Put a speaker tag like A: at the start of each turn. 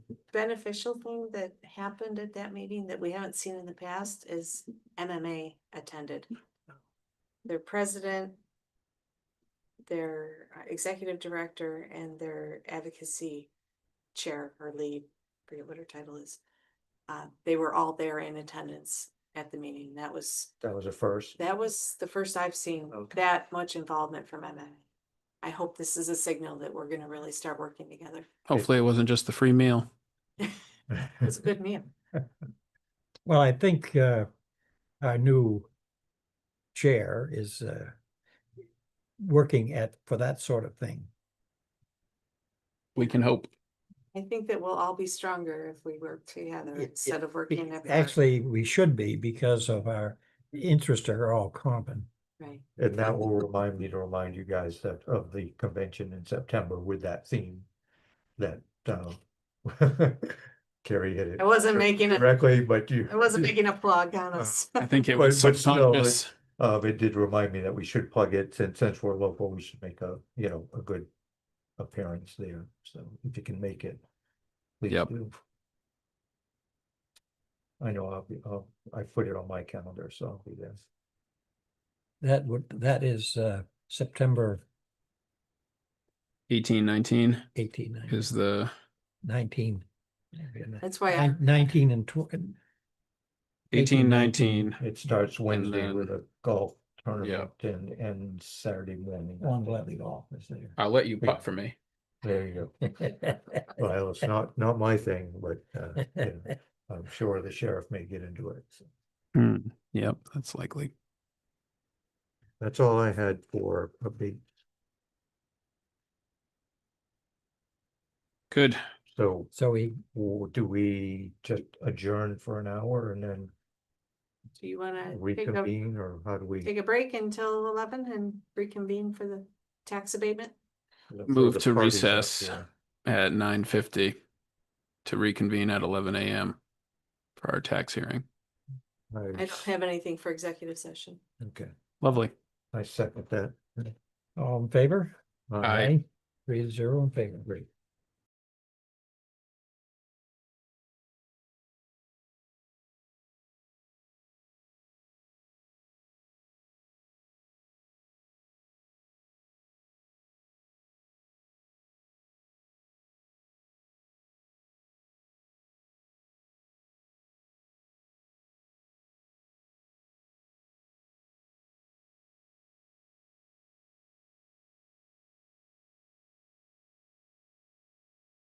A: beneficial thing that happened at that meeting that we haven't seen in the past is MMA attended. Their president, their uh, executive director and their advocacy chair or lead, forget what her title is. Uh, they were all there in attendance at the meeting. That was
B: That was a first.
A: that was the first I've seen
B: Okay.
A: that much involvement from MMA. I hope this is a signal that we're gonna really start working together.
C: Hopefully it wasn't just the free meal.
A: It's a good meal.
D: Well, I think uh, our new chair is uh, working at, for that sort of thing.
C: We can hope.
A: I think that we'll all be stronger if we work together
D: It- it-
A: instead of
D: Be-
A: working. apart.
D: Actually, we should be because of our interests are all common.
A: Right,
B: And that will remind me to remind you guys that of the convention in September with that theme. That, uh. Carrie hit it.
A: I wasn't making a-
B: Directly, but you.
A: I wasn't making a plug
D: Uh,
A: on us.
C: I think it
B: But-
C: was
B: but still, like-
C: subconscious.
B: Uh, but it did remind me that we should plug it, since, since we're local, we should make a, you know, a good appearance there, so if you can make it. please
C: Yep.
B: do. I know I'll be, I'll, I put it on my calendar, so I'll be there.
D: That would, that is uh, September
C: 18, 19
D: eighteen,
C: is the,
D: nineteen.
A: That's why I,
D: Nin- Nineteen and twen-
C: 18,
D: 18,
C: 19
B: It starts Wednesday
C: then-
B: with a golf tournament and, and Saturday morning. I
D: Lawn
B: think
D: volleyball.
B: is there.
C: I'll let you
B: Yeah.
C: putt for me.
B: There you go. Well, it's not, not my thing, but, uh, you know, I'm sure the sheriff may get into it, so.
C: Hmm, Yep, that's likely.
B: That's all I had for a big,
C: Good.
B: so
D: So we,
B: Or do we just adjourn for an hour and then
A: do you wanna take a,
B: reconvene or how do we?
A: take a break until eleven and reconvene for the tax abatement?
C: Move
B: for the
C: to
B: parties up
C: recess.
B: here?
C: At 9:50 to reconvene at 11 a.m. for our tax hearing.
A: I don't have anything for executive session.
B: Okay,
C: Lovely.
B: I second that.
D: all in favor?
B: Uh,
C: Aye.
D: Three to zero in favor.
B: Great.